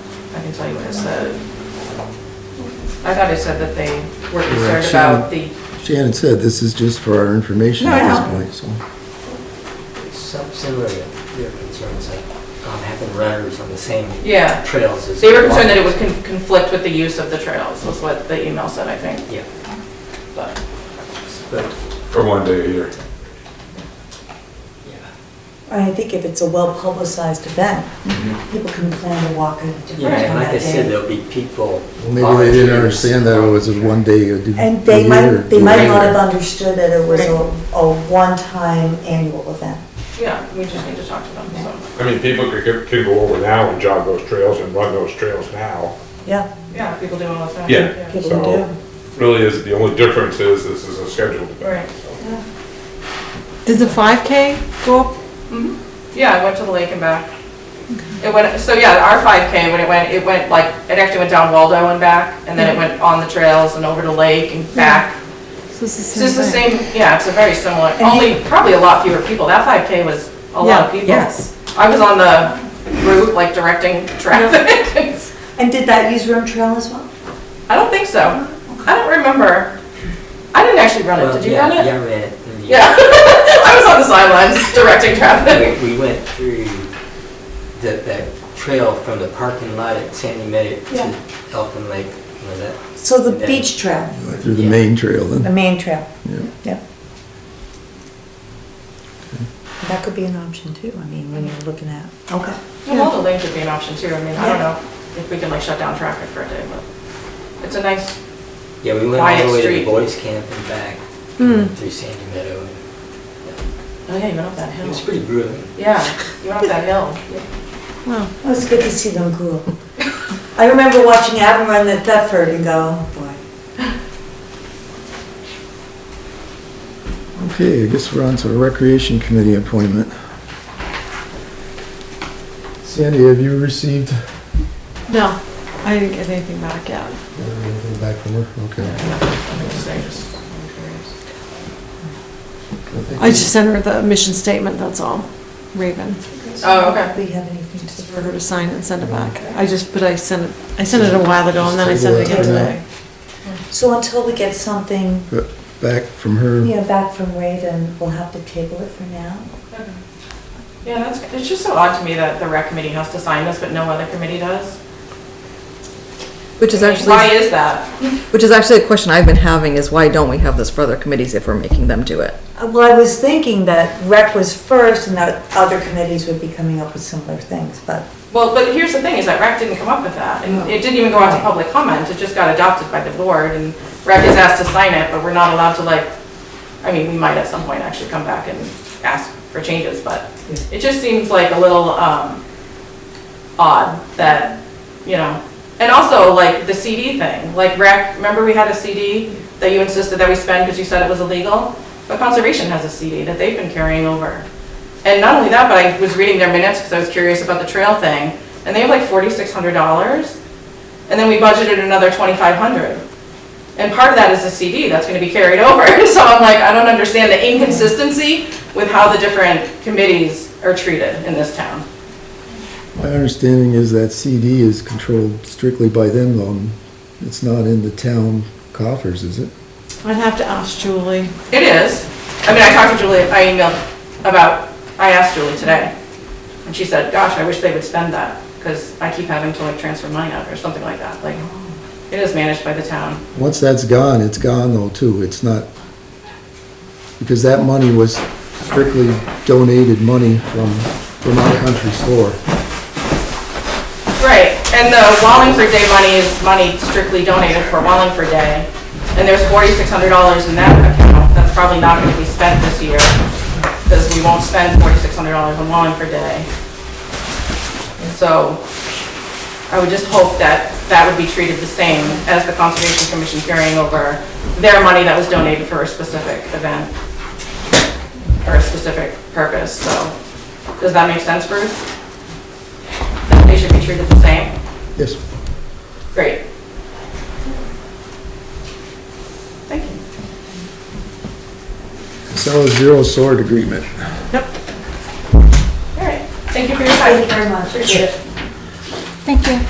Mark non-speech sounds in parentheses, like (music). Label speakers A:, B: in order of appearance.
A: can tell you what it said. I thought it said that they were
B: Right,
A: concerned
B: Shannon.
A: about the
B: Shannon said, this is just for our information
A: No, I
B: at
A: know.
B: this point, so.
C: Some Similar, to your concerns of um, having runners on the same
A: Yeah.
C: trails as.
A: They were concerned that it would con- conflict with the use of the trails, was what the email said, I think,
C: Yeah,
A: but.
C: but,
D: for one day a year.
C: yeah.
E: I think if it's a well-publicized event, people can plan to walk in different
C: Yeah, and
E: time
C: like I
E: that
C: said,
E: day.
C: there'll be people.
B: Maybe they didn't
C: volunteers.
B: understand that it was a one day a do- a year.
E: And they might, they might not have
B: Right.
E: understood that it was a, a one-time annual event.
A: Yeah, we just need to talk to them, so,
D: I mean, people could, go- could go over now and jog those trails and run those trails now.
E: Yeah,
A: yeah, people do all the time.
D: Yeah.
E: people
D: So,
E: do.
D: really is, the only difference is this is a scheduled
A: Right.
D: event.
F: Does the 5K go up?
A: Mm-hmm. Yeah, I went to the lake and back. It went, so yeah, our 5K, when it went, it went like, it actually went down Waldo and back, and then it went on the trails and over to lake and back.
F: So it's the
A: It's just
F: same
A: the
F: thing?
A: same, yeah, it's a very similar,
E: And
A: only probably a lot fewer people. That 5K was a lot of
F: Yeah,
A: people.
F: Yes.
A: I was on the route, like directing traffic. (laughs)
E: And did that use Rim Trail as well?
A: I don't think so. I don't remember. I didn't actually run it.
C: Well,
A: Did you
C: yeah,
A: run it?
C: Yeah, I ran it. and
A: Yeah. (laughs) I was on the sidelines directing traffic.
C: (laughs) We we went through the, that trail from the parking lot at Sandy Meadow to
E: Yeah.
C: Elfin Lake, was that?
E: So the
C: Yeah.
E: beach trail,
B: Through the main trail
E: the
B: then.
E: main trail,
B: Yeah.
E: yeah. That could be an option too, I mean, when you're looking at. Okay.
A: Well, all the lanes would be an option too. I mean, I don't know if we can like shut down traffic for a day, but it's a nice,
C: Yeah, we went
A: Quiet
C: all the way to
A: street.
C: the boys' camp and back
F: Hmm.
C: through Sandy Meadow. and, yeah.
A: oh yeah, you went up that
C: It was
A: hill.
C: pretty grueling.
A: Yeah, you went up that (laughs) hill.
F: Wow.
E: It was good to see them cool. I remember watching Adam run at Thetford and go, oh boy.
B: Okay, I guess we're on to recreation committee appointment. Sandy, have you received uh,
F: No, I didn't get anything back yet.
B: anything back from her? Okay.
A: I'm just saying, just- I'm curious.
B: think
F: I just sent her the mission statement, that's all, Raven,
A: Oh, okay.
E: Do we have anything
F: just
E: to
F: for her to sign and send it back. I just, but I sent it, I sent it a while ago and then I sent it again today.
E: So until we get something,
B: Back from
E: you
B: her,
E: know, back from Raven, we'll have to table it for now.
A: Yeah, that's, it's just so odd to me that the rec committee has to sign this, but no other committee does.
G: Which is
A: I mean, Why
G: actually,
A: is that?
G: which is actually a question I've been having is why don't we have this for other committees if we're making them do it?
E: Uh, Well, I was thinking that rec was first and that other committees would be coming up with similar things, but
A: Well, but here's the thing, is that rec didn't come up with that, and it didn't even go out to public comment, it just got adopted by the board, and rec is asked to sign it, but we're not allowed to like, I mean, we might at some point actually come back and ask for changes, but it just seems like a little, um, odd that, you know, and also like the CD thing, like rec, remember we had a CD that you insisted that we spend because you said it was illegal? But conservation has a CD that they've been carrying over. And not only that, but I was reading their minutes because I was curious about the trail thing, and they have like forty-six hundred dollars. And then we budgeted another twenty-five hundred. And part of that is the CD that's gonna be carried (laughs) over, so I'm like, I don't understand the inconsistency with how the different committees are treated in this town.
B: my understanding is that CD is controlled strictly by them though. It's not in the town coffers, is it?
F: I'd have to ask Julie.
A: It is. I mean, I talked to Julie, I emailed about, I asked Julie today, and she said, gosh, I wish they would spend that, because I keep having to like transfer money out or something like that, like, it is managed by the town.
B: Once that's gone, it's gone though too, it's not, because that money was strictly donated money from Vermont Country Store.
A: Right, and the Wallingford Day money is money strictly donated for Wallingford Day, and there's forty-six hundred dollars in that account, that's probably not gonna be spent this year, because we won't spend forty-six hundred dollars on Wallingford Day. And so, I would just hope that that would be treated the same as the Conservation Commission carrying over their money that was donated for a specific event, or a specific purpose, so, does that make sense, Bruce? That they should be treated the same?
B: Yes,
A: Great. Thank you.
B: Casella Zero Sword Agreement.
A: All right. Thank you for your time.
E: very much.
A: Appreciate it.
F: Thank you.